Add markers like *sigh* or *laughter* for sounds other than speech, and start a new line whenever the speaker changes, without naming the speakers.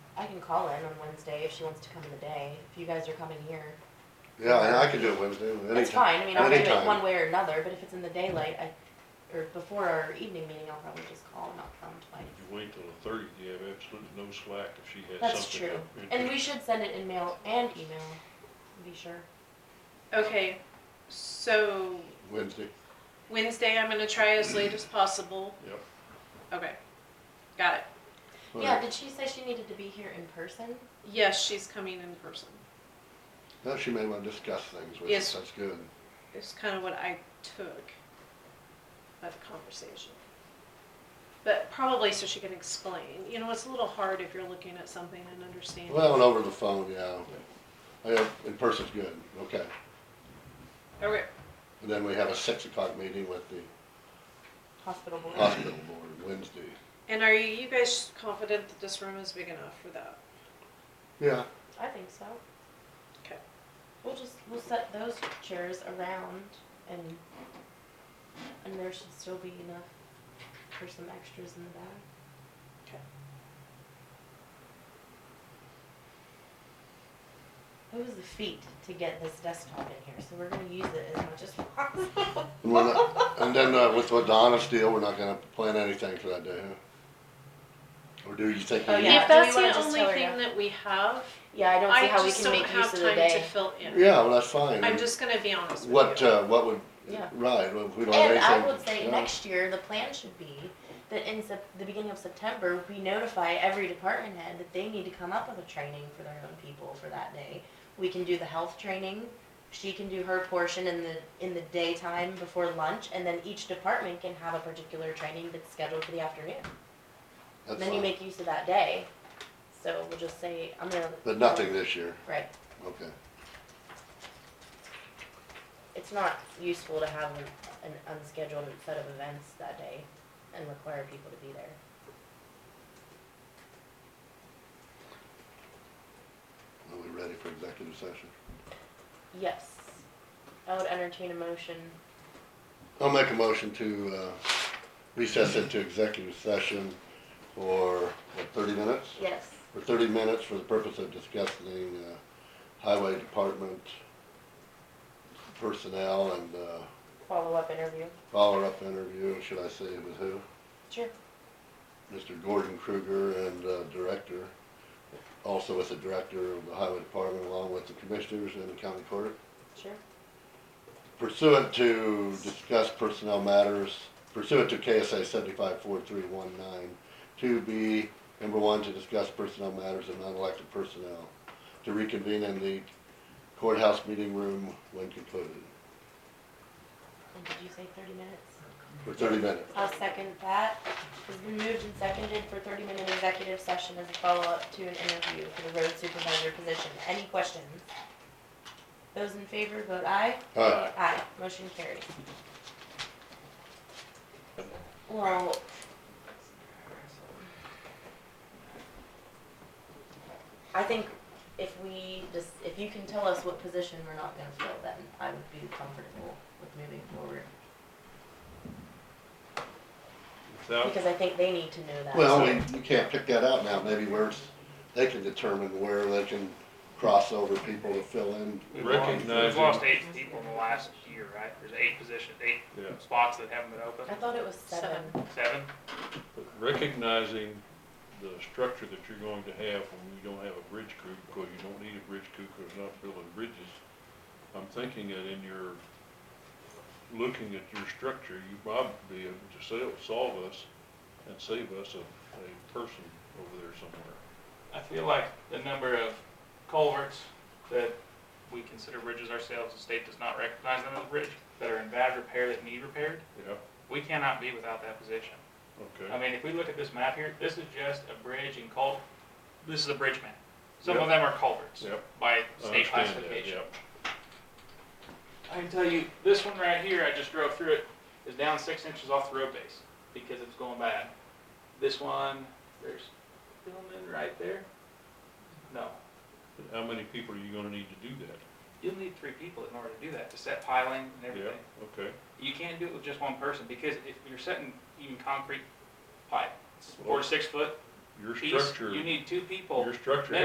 can call in on Wednesday if she wants to come in the day, if you guys are coming here.
Yeah, and I can do it Wednesday,
It's
anytime.
fine, I mean, I'll do it
anytime.
one way or another, but if it's in the daylight, I, or before our evening meeting, I'll probably just call and not come tonight.
If you wait till the thirtieth, you have absolutely no slack if she has
That's
something.
true,
up in-
and we should send it in mail and email, be sure.
Okay, so
Wednesday,
Wednesday I'm gonna try as late as possible.
Yep,
Okay, got it.
Yeah,
Well,
did she say she needed to be here in person?
Yes, she's coming in person.
now she may wanna discuss things with
Yes.
us, that's good.
It's kind of what I took by the conversation. But probably so she can explain. You know, it's a little hard if you're looking at something and understanding.
Well, and over the phone, yeah. Yeah, in person's good, okay.
Okay,
And then we have a six o'clock meeting with the
Hospital board?
hospital board Wednesday.
and are you guys confident that this room is big enough for that?
Yeah,
I think so.
Okay.
We'll just, we'll set those chairs around and, and there should still be enough for some extras in the back.
Okay.
It was a feat to get this desktop in here, so we're gonna use it as much as *laughs* possible.
and we're not, and then uh, with the Adonis deal, we're not gonna plan anything for that day, huh? Or do you think? we
Oh,
need-
yeah.
If
Do we
that's
wanna
the
just
only
tell her
thing
no?
that we have,
Yeah, I don't see
I
how we
just
can
don't
make use
have
of the
time to
day.
fill in.
Yeah, well, that's fine.
I'm just gonna be honest with
What,
you.
uh, what would,
Yeah.
right, well, if we don't have
And
anything.
I would say
yeah.
next year, the plan should be that in Sep- the beginning of September, we notify every department head that they need to come up with a training for their own people for that day. We can do the health training, she can do her portion in the, in the daytime before lunch, and then each department can have a particular training that's scheduled for the afternoon.
That's
Then you
fine.
make use of that day, so we'll just say, I'm gonna.
But nothing this year,
Right,
okay.
it's not useful to have an an unscheduled set of events that day and require people to be there.
Are we ready for executive session?
Yes. I would entertain a motion.
I'll make a motion to uh, recess into executive session for, what, thirty minutes?
Yes.
For thirty minutes for the purpose of discussing uh, highway department personnel and uh,
Follow-up interview.
follow-up interview, should I say with who?
Sure.
Mr. Gordon Kruger and uh, Director, also with the Director of the Highway Department along with the Commissioners and the County Court.
Sure.
Pursuant to discuss personnel matters pursuant to KSA seventy-five four three one nine, to be, number one, to discuss personnel matters of non-elected personnel, to reconvene in the courthouse meeting room when concluded,
And did you say thirty minutes?
for thirty minutes.
I'll second that. It's been moved and seconded for thirty-minute executive session as a follow-up to an interview for the road supervisor position. Any questions? Those in favor, vote aye.
All right,
Aye. Motion carried. Well, I think if we just, if you can tell us what position we're not gonna fill, then I would be comfortable with moving forward.
without,
Because I think they need to know that.
well, we, we can't pick that out now, maybe where it's, they can determine where they can cross over people to fill in.
We've lost- We've
Recognizing-
lost eight people in the last year, right? There's eight positions, eight
yeah,
spots that haven't been
I
open,
thought it was seven.
seven?
but recognizing the structure that you're going to have when you don't have a bridge crew, because you don't need a bridge crew, because you're not building bridges. I'm thinking that in your, looking at your structure, you probably be able to sel- solve us and save us a, a person over there somewhere.
I feel like the number of culverts that we consider bridges ourselves, the state does not recognize them as a bridge, that are in bad repair that need repaired,
Yeah,
we cannot be without that position. I
okay,
mean, if we look at this map here, this is just a bridge and cul, this is a bridge map. Some of them are culverts
Yep.
by
I
state
understand that,
classification.
yeah.
I can tell you, this one right here, I just drove through it, is down six inches off the road base because it's going bad. This one, there's Hillman right there. No,
But How many people are you gonna need to do that?
you'll need three people in order to do that, to set piling and everything.
Yeah, okay,
You can't do it with just one person because if you're setting even concrete pipe, it's four to six foot,
your
piece,
structure,
you need two people.
your structure
Minimum.